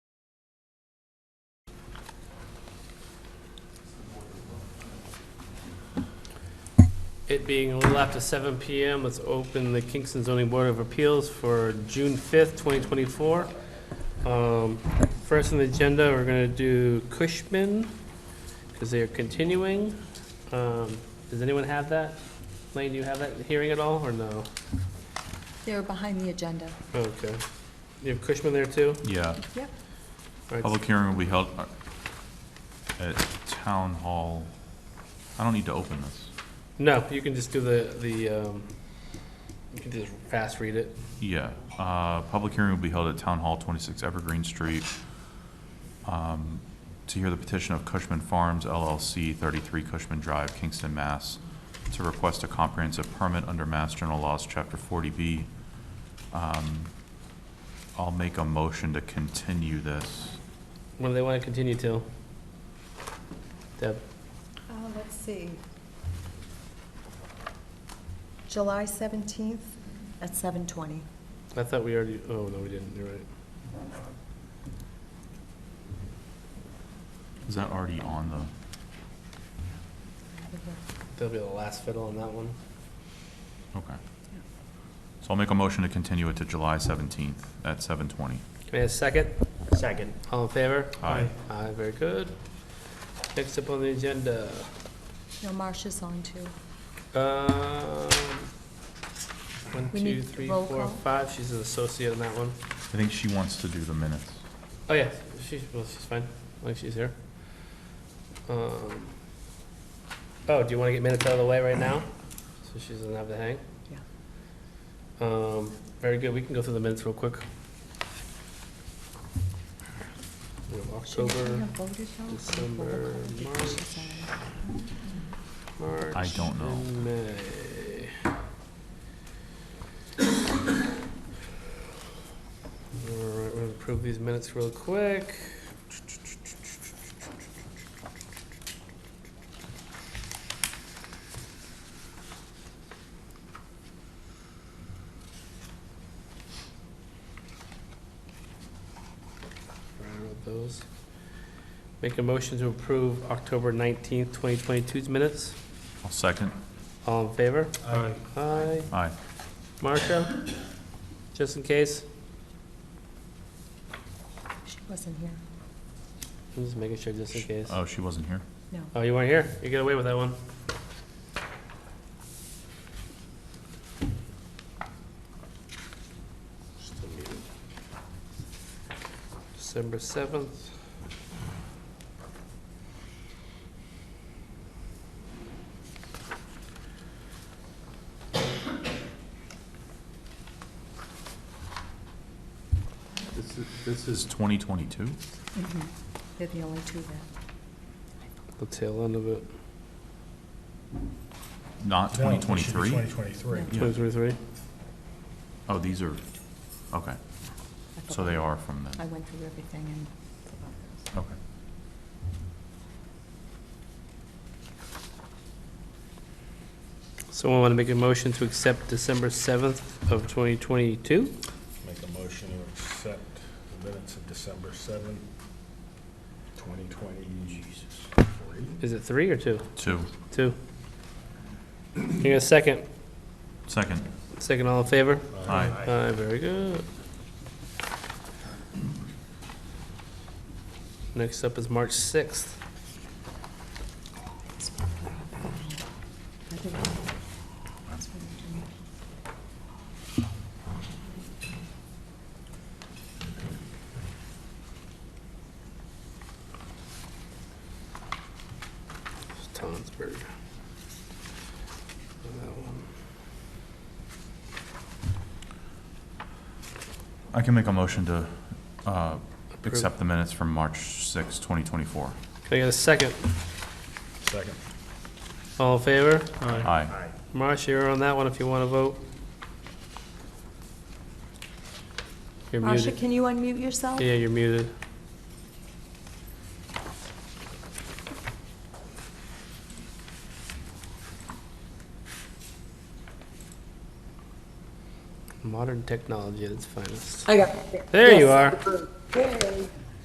It being a little after seven PM, let's open the Kingston Zoning Board of Appeals for June fifth, twenty twenty-four. Um, First on the agenda, we're gonna do Cushman, because they are continuing. Um, Does anyone have that? Lane, do you have that hearing at all, or no? They're behind the agenda. Okay. You have Cushman there too? Yeah, Yep. All right, public hearing will be held uh, at Town Hall. I don't need to open this. No, you can just do the, the, um, you can just fast read it. Yeah, uh, public hearing will be held at Town Hall, 26 Evergreen Street, um, to hear the petition of Cushman Farms LLC, 33 Cushman Drive, Kingston, Mass., to request a comprehensive permit under Mass General Laws, Chapter 40B. Um, I'll make a motion to continue this. What do they want to continue till? Deb, Uh, Let's see. July 17th at 7:20. I thought we already, oh, no, we didn't, you're right. Is that already on the? That'll be the last fiddle on that one. Okay. So I'll make a motion to continue it to July 17th at 7:20. Can I have a second? Second. All in favor? Aye. Aye, very good. Next up on the agenda, No, Marcia's on too. um, one, We two, need three, roll four, call. five, she's an associate on that one. I think she wants to do the minutes. Oh, yeah, she's, well, she's fine, like, she's here. Um, Oh, do you want to get minutes out of the way right now? So she doesn't have to hang? Yeah. Um, very good, we can go through the minutes real quick. We have Should we October, have voted though? December, She's on. March. I don't know. and May. All right, we'll approve these minutes real quick. Right, I wrote those. Make a motion to approve October 19th, 2022's minutes. I'll second. All in favor? Aye. Aye. Aye. Marcia? Just in case? She wasn't here. I'm just making sure, just in case. Oh, she wasn't here? No. Oh, you weren't here? You get away with that one. Still muted. December seventh. This is. This is 2022? Mhm. They're the only two there. The tail end of it. Not 2023? Twenty twenty-three. Yeah. Twenty twenty-three? Oh, these are, okay, I so they are from I then. went through everything and forgot those. Okay. Someone want to make a motion to accept December seventh of twenty twenty-two? Make a motion to accept the minutes of December seventh, twenty twenty. Jesus. Is it three or two? Two. Two. You got a second? Second. Second, all in favor? Aye. Aye, very good. Next up is March 6th. I think that's what I'm doing. It's Tonsberg. That one. I can make a motion to uh, Approve. accept the minutes from March 6, 2024. Can I get a second? Second. All in favor? Aye. Marcia, you're on that one if you want to vote. You're Marcia, muted. can you unmute yourself? Yeah, you're muted. Modern technology at its finest. I got it. There you Yes. are. Yay.